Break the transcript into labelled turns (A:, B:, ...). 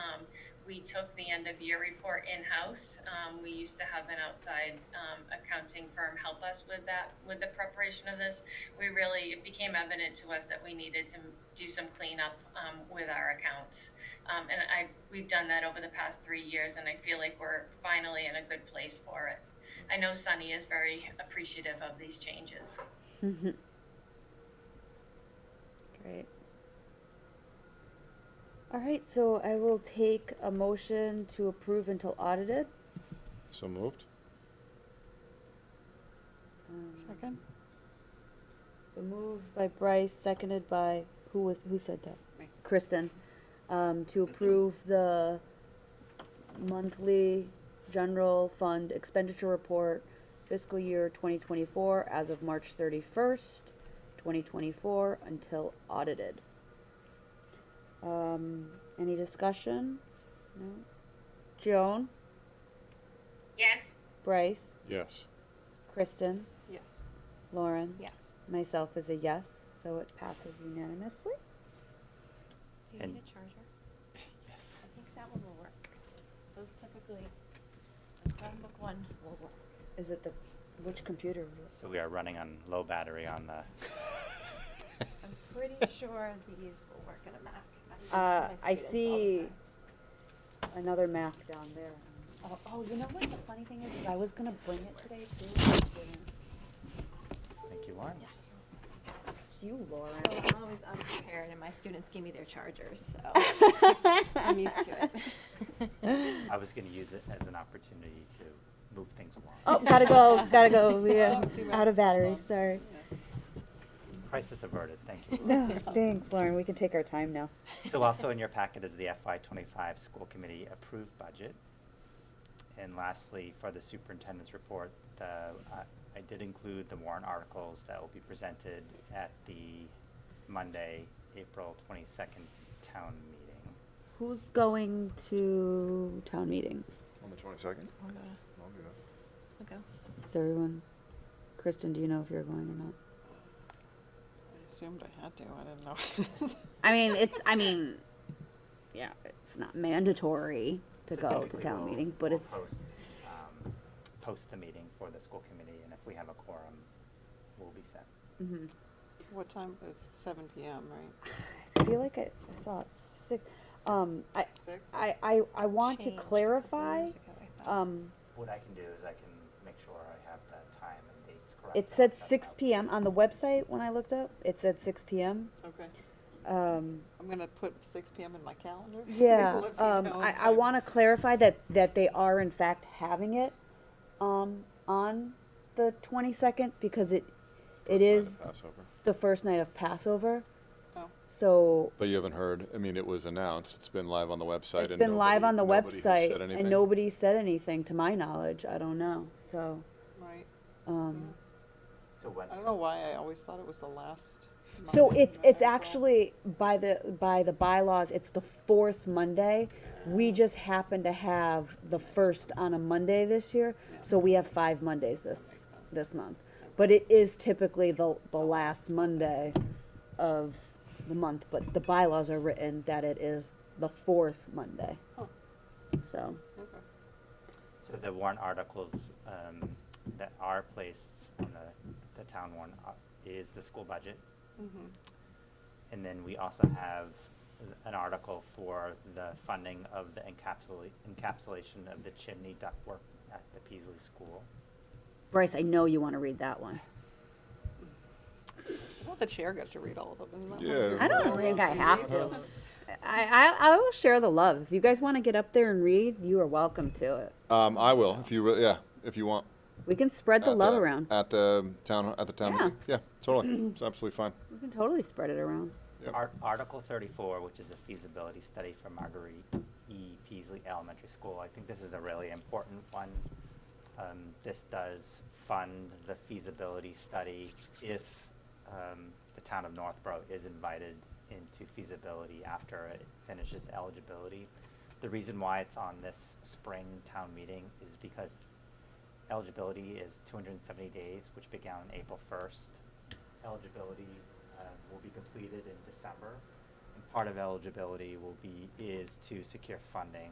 A: Um, we took the end of year report in-house. Um, we used to have an outside, um, accounting firm help us with that, with the preparation of this. We really, it became evident to us that we needed to do some cleanup, um, with our accounts. Um, and I, we've done that over the past three years and I feel like we're finally in a good place for it. I know Sunny is very appreciative of these changes.
B: Mm-hmm. Great. All right, so I will take a motion to approve until audited.
C: So moved?
B: Um,
D: Second?
B: So moved by Bryce, seconded by, who was, who said that?
D: Me.
B: Kristen, um, to approve the monthly general fund expenditure report fiscal year twenty twenty-four as of March thirty-first, twenty twenty-four until audited. Um, any discussion? No? Joan,
A: Yes.
B: Bryce,
C: Yes.
B: Kristen,
D: Yes.
B: Lauren?
D: Yes.
B: Myself is a yes, so it passes unanimously.
E: Do you
F: And-
E: need a charger?
F: Yes.
E: I think that one will work. Those typically, the Chromebook one will work.
B: Is it the, which computer?
F: So we are running on low battery on the.
E: I'm pretty sure these will work on a Mac. use
B: Uh,
E: my
B: I
E: students all the
B: see
E: time.
B: another Mac down there.
E: Oh, oh, you know what the funny thing is? is
B: I
E: I-
B: was gonna bring it today too. but I didn't.
F: Thank you, Lauren.
B: It's you,
E: Well, I'm
B: Lauren.
E: always unprepared and my students give me their chargers, so I'm used to it.
F: I was going to use it as an opportunity to move things along.
B: Oh, gotta go, gotta go, yeah,
D: Oh, two
B: out of
D: minutes.
B: battery,
D: Well,
B: sorry.
F: Crisis averted. Thank you. Lauren.
B: No, thanks, Lauren, we can take our time now.
F: so also in your packet is the FY25 school committee approved budget. And lastly, for the superintendent's report, the, I I did include the warrant articles that will be presented at the Monday, April 22nd town meeting.
B: Who's going to town meeting?
C: On the twenty-second?
E: I'll go. I'll go.
B: Is everyone, Kristen, do you know if you're going or not?
D: I assumed I had to, I didn't know.
B: I mean, it's, I mean, yeah, it's not mandatory to
F: So
B: go to
F: technically
B: town
F: we'll-
B: meeting, but
F: we'll
B: it's,
F: Post, um, post the meeting for the school committee, and if we have a quorum, we'll be set.
B: mhm.
D: What time? It's seven PM, right?
B: I feel like I I saw it six, um, I,
D: Six?
B: I, I, I want to
E: Changed a couple
B: clarify,
E: years ago, I thought.
B: um,
F: What I can do is I can make sure I have the time and dates correct.
B: it
F: and I'll
B: said
F: send
B: six
F: out.
B: PM on the website when I looked up, it said six PM,
D: Okay.
B: um,
D: I'm gonna put six PM in my calendar.
B: yeah,
D: Let me
B: um,
D: know
B: I,
D: if
B: I
D: I'm-
B: wanna clarify that, that they are in fact having it, um, on the twenty-second, because it, it is
C: Passover.
B: the first night of Passover,
D: Oh,
B: so
C: But you haven't heard, I mean, it was announced, it's been live on the website.
B: It's
C: and
B: been live
C: nobody-
B: on the
C: nobody has said
B: website,
C: anything.
B: and nobody said anything, to my knowledge, I don't know, so,
D: right.
B: um,
F: So when's,
D: I don't know why I always thought it was the last.
B: so
D: Monday
B: it's,
D: in
B: it's
D: April.
B: actually, by the, by the bylaws, it's the fourth Monday. We just happen to have the first on a Monday this year, so we have five Mondays this,
D: Makes sense.
B: this month. But it is typically the, the last Monday of the month, but the bylaws are written that it is the fourth Monday,
D: Huh,
B: so.
D: okay.
F: so the warrant articles um, that are placed on the, the town warrant ar- is the school budget,
D: Mhm.
F: and then we also have an article for the funding of the encapsula- encapsulation of the chimney ductwork at the Peasley School.
B: Bryce, I know you wanna read that one.
D: I thought the chair gets to read all of them, isn't that?
C: Yeah.
B: I don't
C: Everyone
B: think I have
C: else
B: to. I, I, I will share the love. If you guys want to get up there and read, you are welcome to it.
C: Um, I will, if you, re- yeah, if you want.
B: We can spread the
C: At
B: love around.
C: At the town, at the town
B: Yeah.
C: meeting. Yeah, totally. It's absolutely fine.
B: We can totally spread it around.
C: Yep.
F: Ar- Article thirty-four, which is a feasibility study for Marguerite E. Peasley Elementary School. I think this is a really important one. Um, this does fund the feasibility study if, um, the town of Northborough is invited into feasibility after it finishes eligibility. The reason why it's on this spring town meeting is because eligibility is two hundred and seventy days, which began on April first. Eligibility uh, will be completed in December, and part of eligibility will be, is to secure funding